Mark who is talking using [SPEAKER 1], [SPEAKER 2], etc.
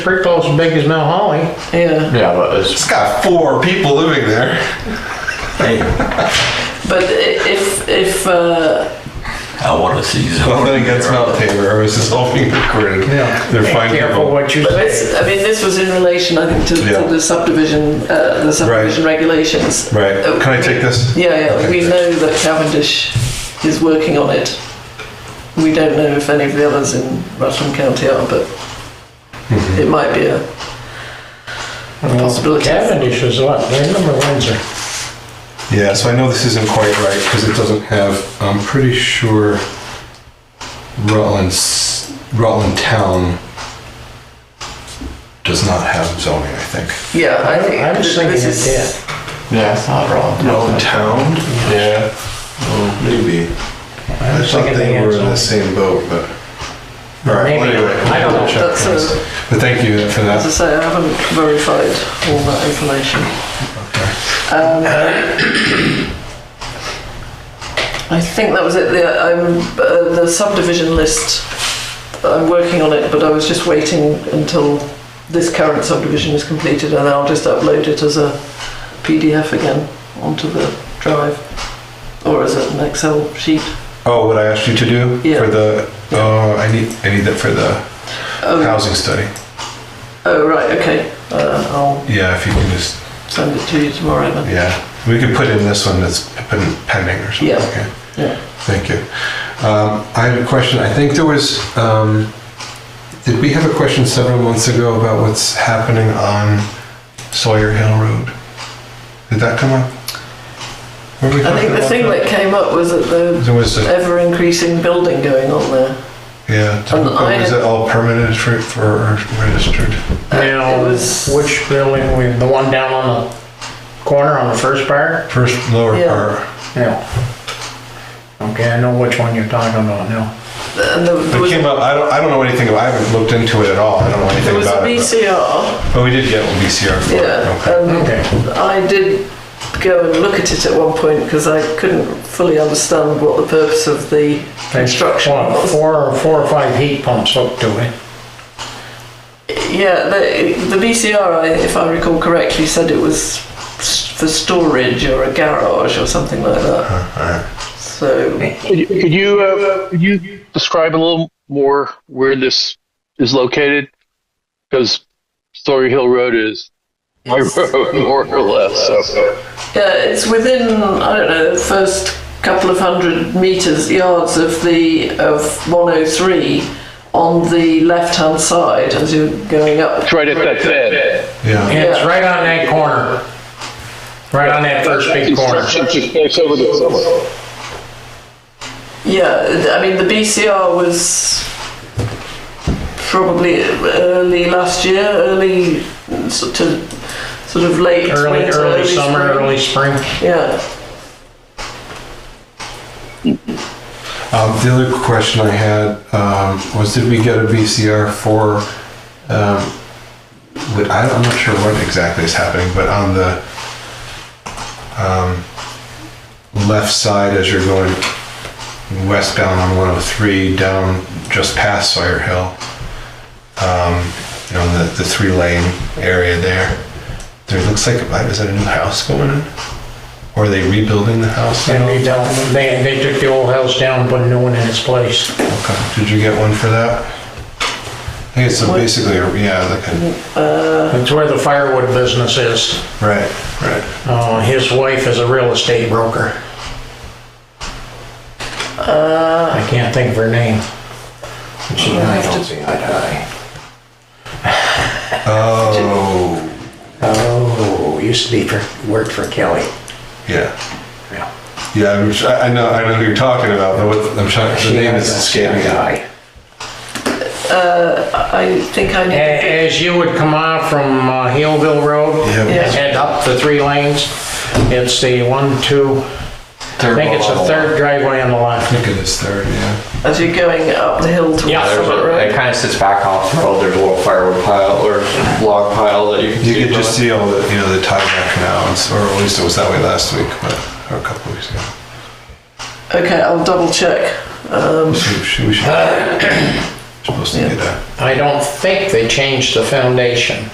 [SPEAKER 1] pretty close as big as Mount Holly.
[SPEAKER 2] Yeah,
[SPEAKER 1] Yeah, but it's
[SPEAKER 3] It's got four people living there.
[SPEAKER 2] but i- if, if, uh,
[SPEAKER 4] I want to see some.
[SPEAKER 3] Nothing against Mount Tabor. I was just hoping recorded.
[SPEAKER 1] Yeah.
[SPEAKER 3] They're fine
[SPEAKER 1] careful
[SPEAKER 3] people.
[SPEAKER 1] what you say.
[SPEAKER 2] it's- I mean, this was in relation, I think, to to
[SPEAKER 3] Yeah.
[SPEAKER 2] the subdivision, uh, the subdivision regulations.
[SPEAKER 3] Right.
[SPEAKER 2] Uh,
[SPEAKER 3] Can I take this?
[SPEAKER 2] Yeah, yeah,
[SPEAKER 3] Okay,
[SPEAKER 2] we
[SPEAKER 3] thanks.
[SPEAKER 2] know that Cavendish is working on it. We don't know if any of the others in Rutland County are, but
[SPEAKER 3] Mm-hmm.
[SPEAKER 2] it might be a possibility.
[SPEAKER 1] Cavendish is what, they're number Windsor.
[SPEAKER 3] Yeah, so I know this isn't quite right because it doesn't have, I'm pretty sure Rutland, s- Rutland Town does not have zoning, I think.
[SPEAKER 2] Yeah, I think.
[SPEAKER 1] I was
[SPEAKER 2] th-
[SPEAKER 1] thinking
[SPEAKER 2] this
[SPEAKER 1] it
[SPEAKER 2] is-
[SPEAKER 1] did. Yeah, it's not wrong.
[SPEAKER 3] Town? Yeah. Oh, maybe.
[SPEAKER 1] I
[SPEAKER 3] I
[SPEAKER 1] was
[SPEAKER 3] thought
[SPEAKER 1] thinking they
[SPEAKER 3] they
[SPEAKER 1] had
[SPEAKER 3] were in the
[SPEAKER 1] some.
[SPEAKER 3] same boat, but. All right, well,
[SPEAKER 1] Maybe
[SPEAKER 3] anyway.
[SPEAKER 1] not. I don't know.
[SPEAKER 3] we'll check
[SPEAKER 2] That's a-
[SPEAKER 3] this. But thank you for
[SPEAKER 2] As I
[SPEAKER 3] that.
[SPEAKER 2] say, I haven't verified all that information. Um, I think that was it. The, I'm, uh, the subdivision list, I'm working on it, but I was just waiting until this current subdivision is completed and I'll just upload it as a PDF again onto the drive or as an Excel sheet.
[SPEAKER 3] Oh, what I asked you to do
[SPEAKER 2] Yeah.
[SPEAKER 3] for the, oh, I need, I need that for the
[SPEAKER 2] Oh,
[SPEAKER 3] housing study.
[SPEAKER 2] oh right, okay. Uh, I'll
[SPEAKER 3] Yeah, if you can just,
[SPEAKER 2] send it to you tomorrow then.
[SPEAKER 3] yeah, we could put in this one that's been pending or something.
[SPEAKER 2] Yeah.
[SPEAKER 3] Okay,
[SPEAKER 2] Yeah.
[SPEAKER 3] thank you. Um, I had a question, I think there was, um, did we have a question several months ago about what's happening on Sawyer Hill Road? Did that come up? Were we
[SPEAKER 2] I
[SPEAKER 3] talking
[SPEAKER 2] think the
[SPEAKER 3] about
[SPEAKER 2] thing that came up was that the
[SPEAKER 3] There was, a-
[SPEAKER 2] ever increasing building going on there.
[SPEAKER 3] yeah,
[SPEAKER 2] And I-
[SPEAKER 3] was it all permitted for, for registered?
[SPEAKER 2] it
[SPEAKER 1] Now,
[SPEAKER 2] was-
[SPEAKER 1] which building, we- the one down on the corner on the first part?
[SPEAKER 3] First lower
[SPEAKER 2] Yeah.
[SPEAKER 3] part,
[SPEAKER 1] Yeah. Okay, I know which one you're talking about now.
[SPEAKER 2] And there
[SPEAKER 3] it
[SPEAKER 2] was,
[SPEAKER 3] came up, I don't, I don't know anything about, I haven't looked into it at all, I don't know
[SPEAKER 2] there
[SPEAKER 3] anything
[SPEAKER 2] was a
[SPEAKER 3] about it. but-
[SPEAKER 2] BCR,
[SPEAKER 3] But we did get one BCR for it.
[SPEAKER 2] yeah,
[SPEAKER 3] Okay.
[SPEAKER 2] and
[SPEAKER 1] Okay.
[SPEAKER 2] I did go and look at it at one point because I couldn't fully understand what the purpose of the construction
[SPEAKER 1] Well,
[SPEAKER 2] was.
[SPEAKER 1] Four, four or five heat pumps up to it.
[SPEAKER 2] Yeah, the, the BCR, I- if I recall correctly, said it was s- for storage or a garage or something like that.
[SPEAKER 3] Uh-huh.
[SPEAKER 2] So,
[SPEAKER 5] Could could you uh, could you describe a little more where this is located? Because Story Hill Road is my
[SPEAKER 2] Yes.
[SPEAKER 5] road, more or less. So
[SPEAKER 2] Yeah, it's within I don't know the first couple of hundred meters yards of the of 103 on the left hand side as you're going up.
[SPEAKER 5] it's right at that bend.
[SPEAKER 3] Yeah.
[SPEAKER 1] And it's right on that corner. Right on that first big corner.
[SPEAKER 5] It's, it's, it's, it's over the summer.
[SPEAKER 2] Yeah, I mean the BCR was probably early last year, early sort of sort of late
[SPEAKER 1] Early,
[SPEAKER 2] winter,
[SPEAKER 1] early summer,
[SPEAKER 2] spring.
[SPEAKER 1] early spring.
[SPEAKER 2] Yeah,
[SPEAKER 3] Um, the other question I had um, was, did we get a VCR for? Um, what- I don't- I'm not sure what exactly is happening, but on the um, left side as you're going westbound on 103, down just past Sawyer Hill, um, you know, the, the three lane area there, there looks like is that a new house going in, or are they rebuilding the house? at
[SPEAKER 1] And
[SPEAKER 3] all?
[SPEAKER 1] they don't, they, they took the old house down, and put a new one in its place.
[SPEAKER 3] Okay, did you get one for that? I think it's a- basically, a- yeah, like a,
[SPEAKER 1] It's where the firewood business is.
[SPEAKER 3] right, right.
[SPEAKER 1] Uh, his wife is a real estate broker. I can't think of her name. She
[SPEAKER 2] Uh. have to-
[SPEAKER 1] see eye to
[SPEAKER 3] Oh,
[SPEAKER 6] Oh, used to be for, worked for Kelly.
[SPEAKER 3] yeah.
[SPEAKER 6] Yeah.
[SPEAKER 3] Yeah, I'm tr- I I know, I know who you're talking about, but what, I'm trying, the name is escaping me.
[SPEAKER 6] guy.
[SPEAKER 2] I think I need.
[SPEAKER 1] A- As you would come off from uh, Hillville Road,
[SPEAKER 3] Yeah.
[SPEAKER 1] and head up the three lanes, it's the one, two, I think it's the third driveway on the
[SPEAKER 3] I
[SPEAKER 1] left.
[SPEAKER 3] think it is third, yeah.
[SPEAKER 2] As you're going up the hill towards
[SPEAKER 1] eh. Yeah,
[SPEAKER 7] There's
[SPEAKER 2] Summit
[SPEAKER 7] a,
[SPEAKER 2] Road.
[SPEAKER 7] it kind of sits back off the road. There's a little firewood pile or log pile that you can
[SPEAKER 3] You
[SPEAKER 7] see
[SPEAKER 3] could just
[SPEAKER 7] from
[SPEAKER 3] see all the, you know, the tieback now, and so- or at least it was that way last week, but, or a couple weeks ago.
[SPEAKER 2] Okay, I'll double check.
[SPEAKER 3] We should- we should- Supposed to get a.
[SPEAKER 1] I don't think they changed the foundation.